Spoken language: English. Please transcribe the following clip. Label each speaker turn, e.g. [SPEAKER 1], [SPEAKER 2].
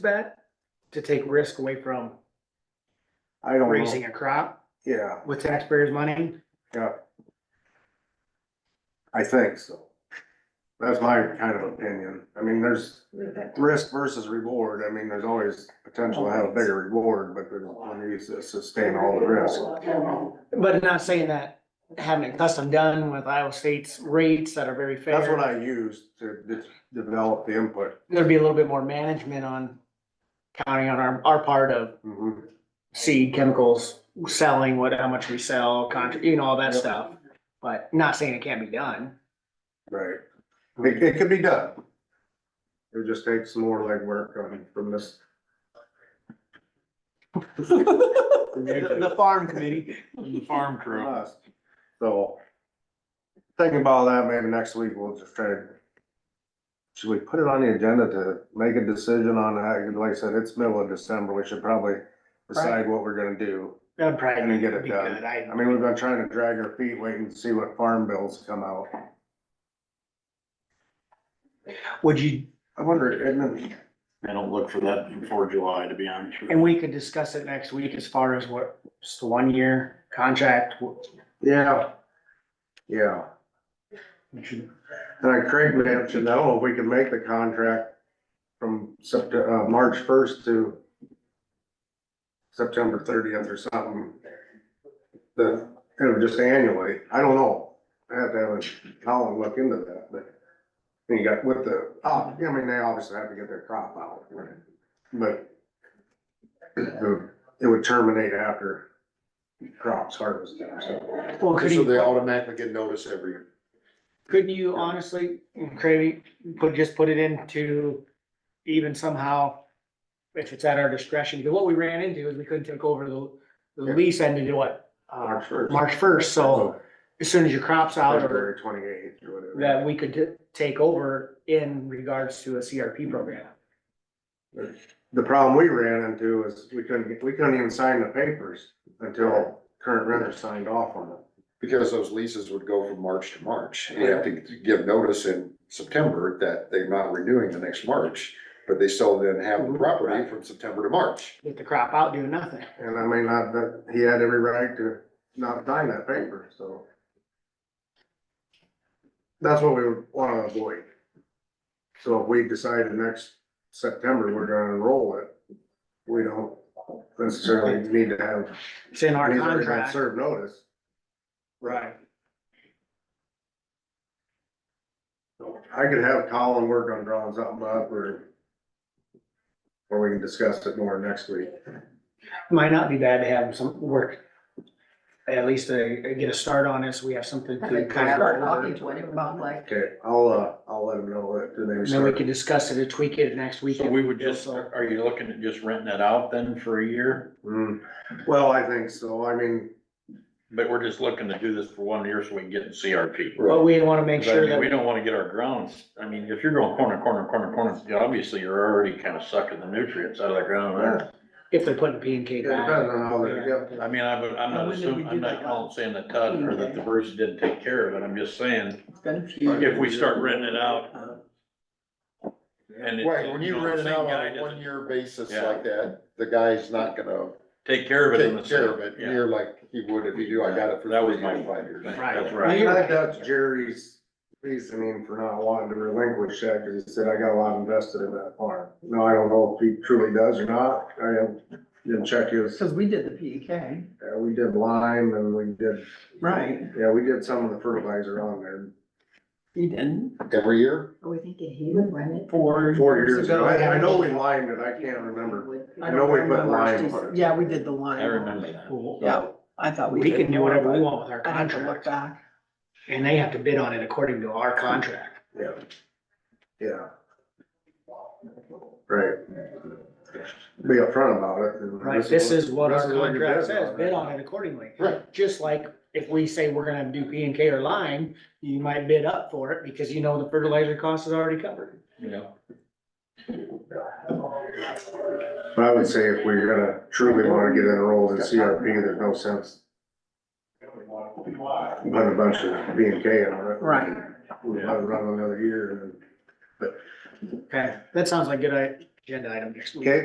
[SPEAKER 1] that to take risk away from
[SPEAKER 2] I don't know,
[SPEAKER 1] raising a crop
[SPEAKER 2] yeah,
[SPEAKER 1] with taxpayers' money?
[SPEAKER 2] yeah. I think so. That's my kind of opinion. I mean, there's risk versus reward. I mean, there's always potential to have a bigger reward, but then when you s- sustain all the risk.
[SPEAKER 1] But not saying that having it custom done with Iowa State's rates that are very fair.
[SPEAKER 2] That's what I used to de- develop the input.
[SPEAKER 1] There'd be a little bit more management on counting on our, our part of
[SPEAKER 2] Mhm.
[SPEAKER 1] seed chemicals, selling what, how much we sell, contra, you know, all that
[SPEAKER 2] Yep.
[SPEAKER 1] stuff. But not saying it can't be done.
[SPEAKER 2] Right.
[SPEAKER 1] Mm-hmm.
[SPEAKER 2] It, it could be done. It would just takes some more legwork on from this.
[SPEAKER 1] The the farm committee.
[SPEAKER 3] The farm
[SPEAKER 2] from
[SPEAKER 3] crew.
[SPEAKER 2] us. So. Thinking about that, maybe next week we'll just try to. Should we put it on the agenda to make a decision on that? Like I said, it's middle of December. We should probably decide what we're gonna do.
[SPEAKER 1] That'd probably
[SPEAKER 2] And get it
[SPEAKER 1] be
[SPEAKER 2] done.
[SPEAKER 1] good. I,
[SPEAKER 2] I mean, we've been trying to drag our feet waiting to see what farm bills come out.
[SPEAKER 1] would you,
[SPEAKER 2] I wonder, Edmund,
[SPEAKER 3] I don't look for that before July, to be honest with
[SPEAKER 1] and
[SPEAKER 3] you.
[SPEAKER 1] we could discuss it next week as far as what, just the one-year contract, wh-
[SPEAKER 2] yeah. Yeah,
[SPEAKER 1] we should
[SPEAKER 2] and I Craig mentioned, I don't know if we can make the contract from September, uh, March first to September thirtieth or something. The, it would just annually, I don't know, I have to have a Colin look into that, but you got with the, oh, I mean, they obviously have to get their crop out, right? but it would- it would terminate after crops harvested, so.
[SPEAKER 1] Well, could
[SPEAKER 4] So they
[SPEAKER 1] you,
[SPEAKER 4] automatically get notice every year.
[SPEAKER 1] couldn't you honestly, Craig, put, just put it into even somehow, if it's at our discretion, because what we ran into is we couldn't take over the, the
[SPEAKER 2] Yeah.
[SPEAKER 1] lease ended at what? uh,
[SPEAKER 2] March first.
[SPEAKER 1] March first,
[SPEAKER 4] Uh-huh.
[SPEAKER 1] so as soon as your crop's out or
[SPEAKER 2] February twenty-eighth or whatever.
[SPEAKER 1] that we could t- take over in regards to a CRP program.
[SPEAKER 2] The problem we ran into is we couldn't, get- we couldn't even sign the papers until current renter signed off on it.
[SPEAKER 4] Because those leases would go from March to March. You have to give notice in September that they're not renewing the next March, but they still then have the property from September to March.
[SPEAKER 1] Get the crop out, do nothing.
[SPEAKER 2] And I mean, not that, he had every right to not sign that paper, so. That's what we would wanna avoid. So if we decided next September we're gonna enroll it, we don't necessarily need to have.
[SPEAKER 1] It's in our
[SPEAKER 2] we've already had
[SPEAKER 1] contract.
[SPEAKER 2] Served notice.
[SPEAKER 1] Right.
[SPEAKER 2] I could have Colin work on drawing something up or. Or we can discuss it more next week.
[SPEAKER 1] Might not be bad to have some work, at least to get a start on it, so we have something
[SPEAKER 5] I
[SPEAKER 1] to
[SPEAKER 5] think
[SPEAKER 1] kind
[SPEAKER 5] I
[SPEAKER 1] of.
[SPEAKER 5] start talking to him about like,
[SPEAKER 2] Okay, I'll, uh, I'll let him know that the
[SPEAKER 1] And
[SPEAKER 2] name's.
[SPEAKER 1] then we can discuss it and tweak it next week.
[SPEAKER 3] So we would just,
[SPEAKER 1] So-
[SPEAKER 3] are you looking at just renting it out then for a year?
[SPEAKER 2] Hmm, well, I think so, I mean,
[SPEAKER 3] But we're just looking to do this for one year so we can get in CRP.
[SPEAKER 1] But we want to make
[SPEAKER 3] Because I
[SPEAKER 1] sure
[SPEAKER 3] mean, we
[SPEAKER 1] that,
[SPEAKER 3] don't wanna get our grounds, I mean, if you're going corner, corner, corner, corner, yeah, obviously you're already kinda sucking the nutrients out of the ground. there.
[SPEAKER 1] if they're putting P and K
[SPEAKER 2] it depends
[SPEAKER 1] back.
[SPEAKER 2] on how they're, yep,
[SPEAKER 3] I mean, I would, I'm
[SPEAKER 5] Now, when did
[SPEAKER 3] not
[SPEAKER 5] we
[SPEAKER 3] assuming,
[SPEAKER 5] do
[SPEAKER 3] I'm not
[SPEAKER 5] that
[SPEAKER 3] calling saying that Todd or that the Bruce didn't take care of it, I'm just saying,
[SPEAKER 5] it's been a few.
[SPEAKER 3] if we start renting it out.
[SPEAKER 5] uh,
[SPEAKER 3] And it-
[SPEAKER 4] Right, when you
[SPEAKER 3] know, the
[SPEAKER 4] rent it
[SPEAKER 3] same
[SPEAKER 4] out
[SPEAKER 3] guy
[SPEAKER 4] on a
[SPEAKER 3] doesn't
[SPEAKER 4] one-year basis
[SPEAKER 3] Yeah.
[SPEAKER 4] like that, the guy's not gonna
[SPEAKER 3] Take care of it in the
[SPEAKER 4] take care of
[SPEAKER 3] same,
[SPEAKER 4] it
[SPEAKER 3] yeah.
[SPEAKER 4] near like he would if he knew I got it for
[SPEAKER 3] That was
[SPEAKER 4] three
[SPEAKER 3] my-
[SPEAKER 4] years, five years.
[SPEAKER 1] Right.
[SPEAKER 3] That's
[SPEAKER 2] I
[SPEAKER 3] right.
[SPEAKER 2] think that's Jerry's reasoning for not wanting to relinquish that, cause he said, I got a lot invested in that farm. No, I don't know if he truly does or not, I haven't- didn't check his,
[SPEAKER 5] Cause we did the P E K.
[SPEAKER 2] uh, we did lime and we did,
[SPEAKER 5] Right.
[SPEAKER 2] yeah, we did some of the fertilizer on there.
[SPEAKER 5] You didn't?
[SPEAKER 4] Every year?
[SPEAKER 5] Oh, I think he would rent it for.
[SPEAKER 2] Four years ago, I, I know we limed it, I can't remember. I know we put lime on it.
[SPEAKER 5] Yeah, we did the lime.
[SPEAKER 3] I remember that.
[SPEAKER 5] Yeah, I thought we.
[SPEAKER 1] We
[SPEAKER 5] did
[SPEAKER 1] can do
[SPEAKER 5] more,
[SPEAKER 1] whatever we
[SPEAKER 5] but
[SPEAKER 1] want with our
[SPEAKER 5] I'd have to look
[SPEAKER 1] contract,
[SPEAKER 5] back.
[SPEAKER 1] and they have to bid on it according to our contract.
[SPEAKER 2] Yeah, yeah. Right. Be upfront about it. and
[SPEAKER 1] Right, this is what
[SPEAKER 2] this
[SPEAKER 1] our
[SPEAKER 2] is what your
[SPEAKER 1] contract
[SPEAKER 2] bid
[SPEAKER 1] says,
[SPEAKER 2] on,
[SPEAKER 1] bid
[SPEAKER 2] right?
[SPEAKER 1] on it accordingly.
[SPEAKER 4] Right.
[SPEAKER 1] Just like if we say we're gonna do P and K or lime, you might bid up for it because you know the fertilizer cost is already covered.
[SPEAKER 3] Yeah.
[SPEAKER 2] But I would say if we're gonna truly wanna get enrolled in CRP, there's no sense. Putting a bunch of B and K on it.
[SPEAKER 5] Right.
[SPEAKER 2] We'll let it run another year and then
[SPEAKER 1] Okay, that sounds like a good,
[SPEAKER 6] agenda item next week.
[SPEAKER 1] Okay,